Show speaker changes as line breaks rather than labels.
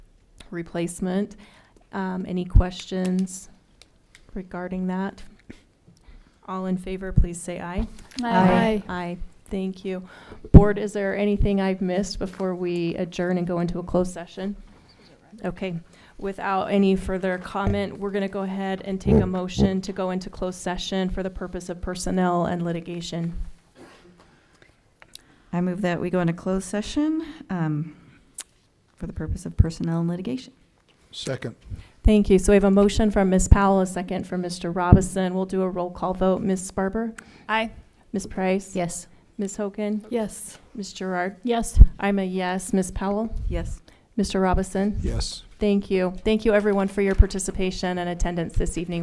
replacement. Um, Any questions regarding that? All in favor, please say aye.
Aye.
Aye, thank you. Board, is there anything I've missed before we adjourn and go into a closed session? Okay, without any further comment, we're going to go ahead and take a motion to go into closed session for the purpose of personnel and litigation.
I move that we go into closed session um, for the purpose of personnel and litigation.
Second.
Thank you. So we have a motion from Ms. Powell, a second from Mr. Robison. We'll do a roll call vote. Ms. Barber?
Aye.
Ms. Price?
Yes.
Ms. Hogan?
Yes.
Ms. Gerard?
Yes.
I'm a yes. Ms. Powell?
Yes.
Mr. Robison?
Yes.
Thank you. Thank you, everyone, for your participation and attendance this evening.